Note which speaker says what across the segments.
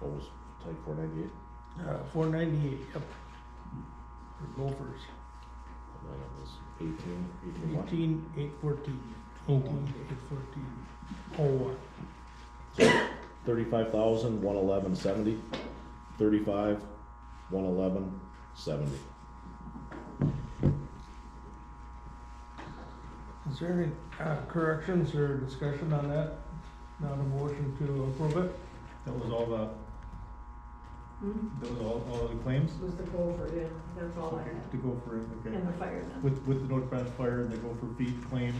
Speaker 1: What was type four ninety-eight?
Speaker 2: Uh, four ninety-eight, yep. For Gophers,
Speaker 1: And then it was eighteen, eighteen what?
Speaker 2: eighteen, eight fourteen.
Speaker 3: Oh,
Speaker 2: Eighteen, eight fourteen. Oh, one.
Speaker 1: Thirty-five thousand, one eleven, seventy. Thirty-five, one eleven, seventy.
Speaker 2: Is there any, uh, corrections or discussion on that? Not a motion to approve it?
Speaker 3: That was all the,
Speaker 4: Hmm?
Speaker 3: that was all, all the claims?
Speaker 4: It was the Gopher, yeah, that's all I
Speaker 3: Okay,
Speaker 4: had.
Speaker 3: To go for it, okay.
Speaker 4: And the fire then.
Speaker 3: With, with the North Branch Fire and the Gopher Feed claim,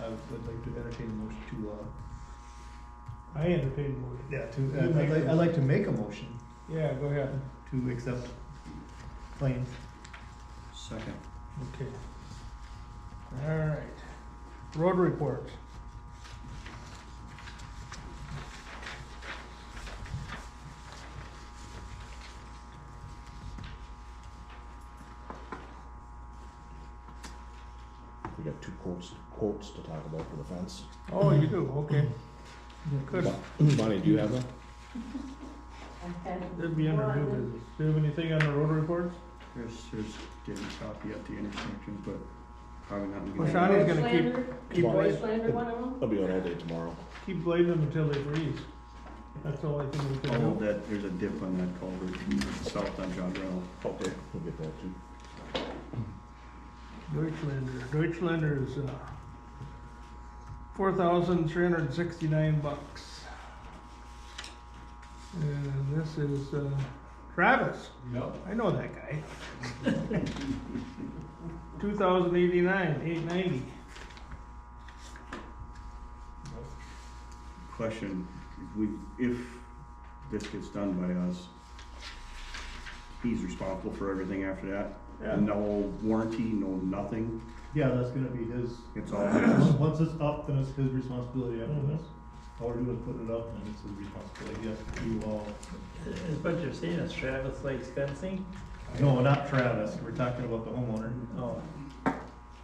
Speaker 3: I would like to entertain a motion to, uh,
Speaker 2: I entertain a motion.
Speaker 3: yeah,
Speaker 2: You
Speaker 3: to, I'd
Speaker 2: make
Speaker 3: like,
Speaker 2: the
Speaker 3: I'd like to make a motion
Speaker 2: Yeah, go ahead.
Speaker 3: to accept claims.
Speaker 5: Second.
Speaker 2: Okay. All right. Road reports.
Speaker 1: We got two quotes, quotes to talk about for the fence.
Speaker 2: Oh, you do, okay. Good.
Speaker 1: Mon- Bonnie, do you have them?
Speaker 4: I had
Speaker 2: That'd be under new
Speaker 4: one.
Speaker 2: business. Do you have anything on the road reports?
Speaker 5: Chris, here's getting a copy at the intersection, but probably not. gonna-
Speaker 2: Well, Shawnee's gonna keep-
Speaker 4: Deutschlander-
Speaker 2: keep
Speaker 1: Come on.
Speaker 2: blazing,
Speaker 4: Deutschlander one of them?
Speaker 1: I'll be out all day tomorrow.
Speaker 2: keep blazing until they freeze. That's all I think we can
Speaker 5: Oh,
Speaker 2: do.
Speaker 5: that, there's a dip on that culvert south on John Brown.
Speaker 1: Okay. We'll get that too.
Speaker 2: Deutschlander, Deutschlander is, uh, four thousand three hundred and sixty-nine bucks. And this is, uh, Travis.
Speaker 3: No.
Speaker 2: I know that guy. Two thousand eighty-nine, eight ninety.
Speaker 5: Question, if we, if this gets done by us, he's responsible for everything after that?
Speaker 2: Yeah.
Speaker 5: No warranty, no nothing,
Speaker 3: Yeah, that's gonna be his,
Speaker 5: it's all his.
Speaker 3: once it's up, then it's his responsibility after
Speaker 6: Mm-hmm.
Speaker 2: Mhm.
Speaker 3: this. All we're doing is putting it up and it's his responsibility, yes, you all.
Speaker 6: Is what you're saying is Travis likes fencing?
Speaker 3: No, not Travis, we're talking about the homeowner.
Speaker 6: Oh,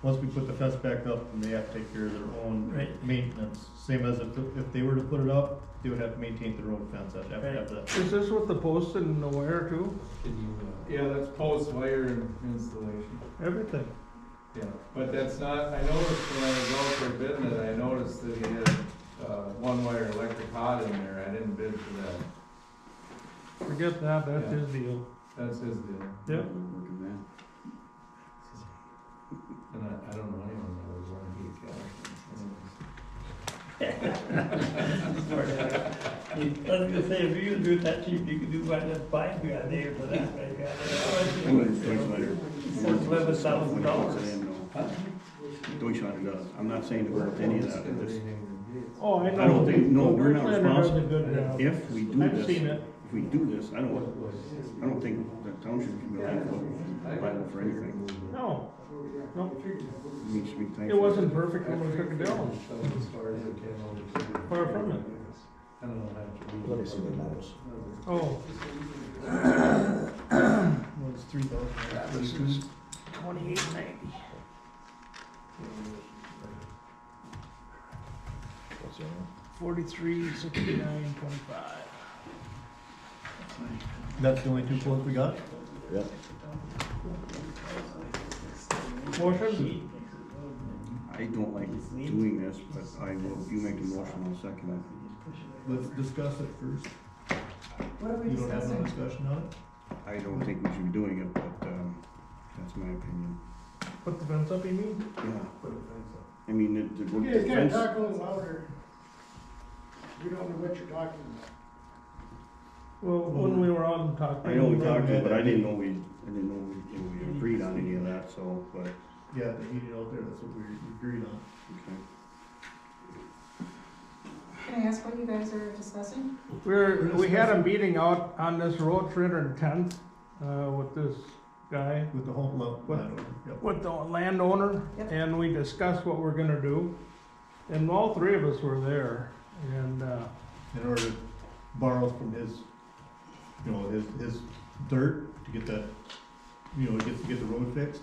Speaker 3: Once we put the fence back up, and they have to take care of their own
Speaker 6: Right.
Speaker 3: maintenance, same as if, if they were to put it up, they would have to maintain their own fence, I'd have to have the.
Speaker 2: Is this with the post and the wire too?
Speaker 7: Yeah, that's post wire and installation,
Speaker 2: Everything.
Speaker 7: yeah, but that's not, I noticed when I was out for bidding it, I noticed that he had, uh, one wire electric hot in there, I didn't bid for that,
Speaker 2: Forget that, that's
Speaker 7: Yeah.
Speaker 2: his deal.
Speaker 7: that's his deal,
Speaker 2: Yep.
Speaker 5: Working man.
Speaker 7: and I, I don't know anyone that would wanna be a cat.
Speaker 6: sorry. I was gonna say, if you could do it that cheap, you could do one that's five grand there for that, right? Yeah. Says eleven thousand dollars.
Speaker 5: Deutschland does, I'm not saying to go with any of that, I'm just,
Speaker 2: Oh, I know.
Speaker 5: I don't think- no, we're not
Speaker 2: Deutschlander does a
Speaker 5: responsible.
Speaker 2: good job.
Speaker 5: if we do
Speaker 2: I've
Speaker 5: this,
Speaker 2: seen it.
Speaker 5: if we do this, I don't, I don't think the township can be liable, liable for anything.
Speaker 2: No, no,
Speaker 5: It needs to be thankful.
Speaker 2: it wasn't perfect when we took it down.
Speaker 7: As far as it came over to.
Speaker 2: Far from it.
Speaker 7: I don't know how to.
Speaker 1: Let me see the notice.
Speaker 2: Oh,
Speaker 3: Well, it's three
Speaker 2: this
Speaker 3: thousand.
Speaker 2: is twenty-eight ninety.
Speaker 1: What's the other one?
Speaker 2: Forty-three, sixty-nine, twenty-five.
Speaker 3: That's the only two quotes we got?
Speaker 1: Yep.
Speaker 2: Motion?
Speaker 5: I don't like doing this, but I will, you make the motion, I'll second
Speaker 3: Let's discuss it first.
Speaker 4: What are we
Speaker 3: You don't have no
Speaker 4: discussing?
Speaker 3: discussion on it?
Speaker 5: it. I don't think we should be doing it, but, um, that's my opinion.
Speaker 2: Put the fence up, you mean?
Speaker 5: Yeah. I mean, it, the.
Speaker 8: You guys gotta
Speaker 5: fence-
Speaker 8: talk a little louder. You don't know what you're talking about.
Speaker 2: Well, when we were out and talking.
Speaker 5: I know we talked,
Speaker 3: about
Speaker 5: but I didn't know we, I didn't know we, we agreed on any of that, so, but,
Speaker 3: Yeah, the heating out there, that's what we agreed on.
Speaker 5: okay.
Speaker 4: Can I ask what you guys are discussing?
Speaker 2: We're, we had a meeting out on this road, three hundred and tenth, uh, with this guy.
Speaker 3: With the home loan,
Speaker 2: What?
Speaker 3: yep.
Speaker 2: with the landowner
Speaker 4: Yep.
Speaker 2: and we discussed what we're gonna do. And all three of us were there and, uh,
Speaker 3: in order to borrow from his, you know, his, his dirt to get that, you know, get, to get the road fixed.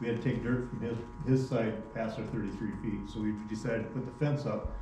Speaker 3: We had to take dirt from his, his side past our thirty-three feet, so we decided to put the fence up